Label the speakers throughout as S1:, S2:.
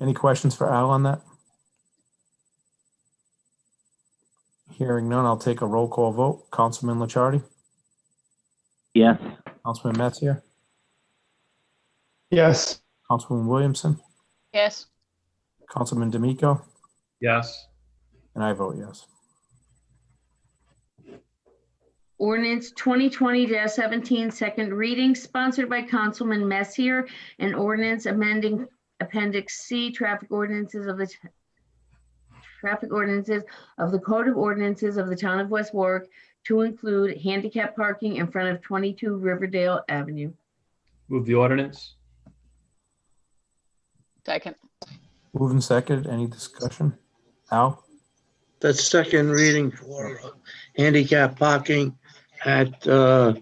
S1: Any questions for Al on that? Hearing none, I'll take a roll call vote. Councilman Lichardi,
S2: Yes.
S1: Councilman Metzger,
S3: Yes.
S1: Councilman Williamson,
S4: Yes.
S1: Councilman D'Amico,
S3: Yes.
S1: and I vote yes.
S5: Ordinance 2020-17, second reading, sponsored by Councilman Messier, an ordinance amending Appendix C, traffic ordinances of the t- traffic ordinances of the Code of Ordinances of the Town of West Warwick to include handicap parking in front of 22 Riverdale Avenue.
S3: Move the ordinance?
S4: Second.
S1: Moved and seconded. Any discussion? Al?
S6: That's second reading for handicap parking at, uh,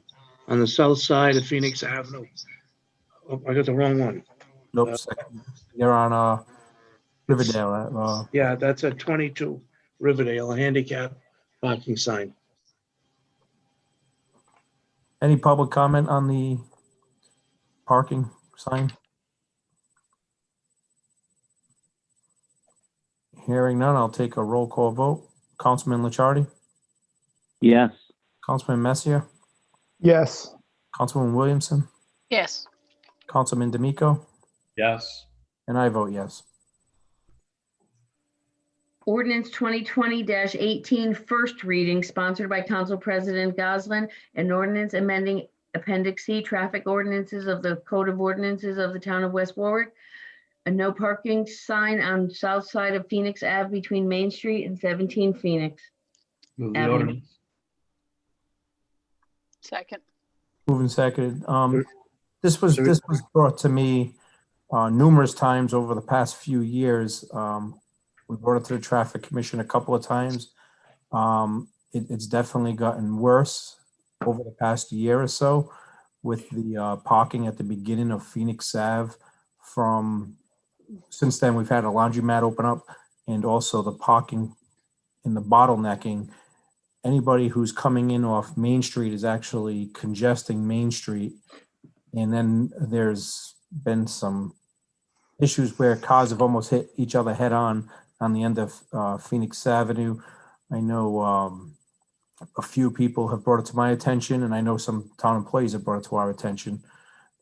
S6: on the south side of Phoenix Avenue. Oh, I got the wrong one.
S1: Nope. second. You're on, uh, Riverdale, uh,
S6: Yeah, that's at 22 Riverdale, a handicap parking sign.
S1: Any public comment on the parking sign? Hearing none, I'll take a roll call vote. Councilman Lichardi,
S2: Yes.
S1: Councilman Messier,
S3: Yes.
S1: Councilman Williamson,
S4: Yes.
S1: Councilman D'Amico,
S3: Yes.
S1: and I vote yes.
S5: Ordinance 2020-18, first reading, sponsored by Council President Goslin, an ordinance amending Appendix C, traffic ordinances of the Code of Ordinances of the Town of West Warwick, a no parking sign on south side of Phoenix Ave between Main Street and 17 Phoenix.
S3: Move
S5: the Avenue. ordinance.
S4: Second.
S1: Moving seconded. Um, this was, this was brought to me, uh, numerous times over the past few years. Um, we brought it to the traffic commission a couple of times. Um, it, it's definitely gotten worse over the past year or so with the, uh, parking at the beginning of Phoenix Ave from, since then, we've had a laundromat open up and also the parking and the bottlenecking anybody who's coming in off Main Street is actually congesting Main Street. And then there's been some issues where cars have almost hit each other head on on the end of uh, Phoenix Avenue. I know um, a few people have brought it to my attention, and I know some town employees have brought it to our attention.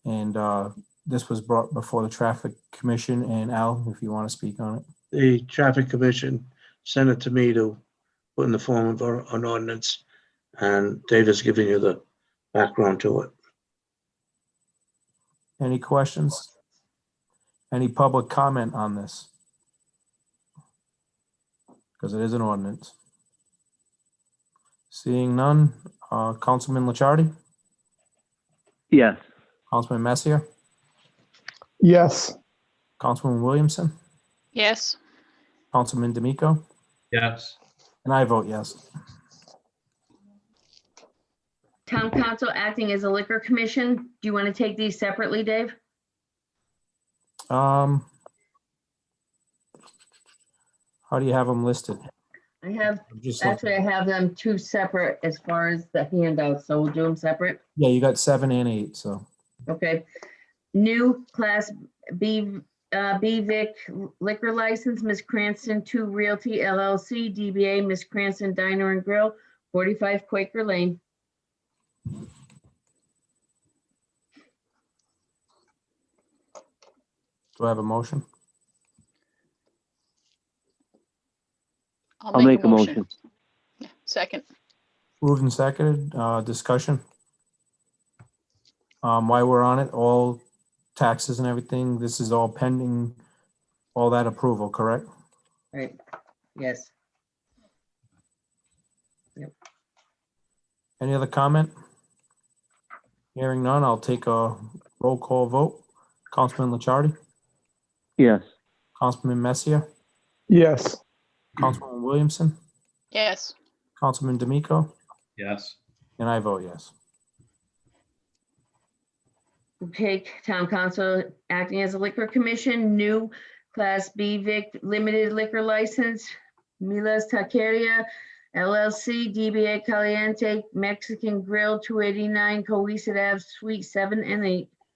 S1: And uh, this was brought before the Traffic Commission. And Al, if you want to speak on it.
S6: The traffic commission sent it to me to put in the form of a- an ordinance. And David's giving you the background to it.
S1: Any questions? Any public comment on this? Because it is an ordinance. Seeing none, uh, Councilman Lichardi,
S2: Yes.
S1: Councilman Messier,
S3: Yes.
S1: Councilman Williamson,
S4: Yes.
S1: Councilman D'Amico,
S3: Yes.
S1: and I vote yes.
S5: Town Council acting as a liquor commission. Do you want to take these separately, Dave?
S1: Um, how do you have them listed?
S5: I have,
S1: I'm just looking-
S5: actually, I have them two separate as far as the handouts, so we'll do them separate.
S1: Yeah, you got seven and eight, so
S5: Okay. New Class B, uh, B Vic liquor license, Ms. Cranston Two Realty LLC, DBA Ms. Cranston Diner and Grill, 45 Quaker Lane.
S1: do I have a motion?
S2: I'll make a motion.
S4: Second.
S1: Moved and seconded, uh, discussion. Um, while we're on it, all taxes and everything, this is all pending, all that approval, correct?
S5: Right, yes.
S1: Any other comment? Hearing none, I'll take a roll call vote. Councilman Lichardi,
S2: Yes.
S1: Councilman Messier,
S3: Yes.
S1: Councilman Williamson,
S4: Yes.
S1: Councilman D'Amico,
S3: Yes.
S1: and I vote yes.
S5: Take Town Council acting as a liquor commission, new Class B Vic limited liquor license, Milas Taqueria LLC, DBA Caliente Mexican Grill, 289 Cohasset Ave, Suite 7 and 8.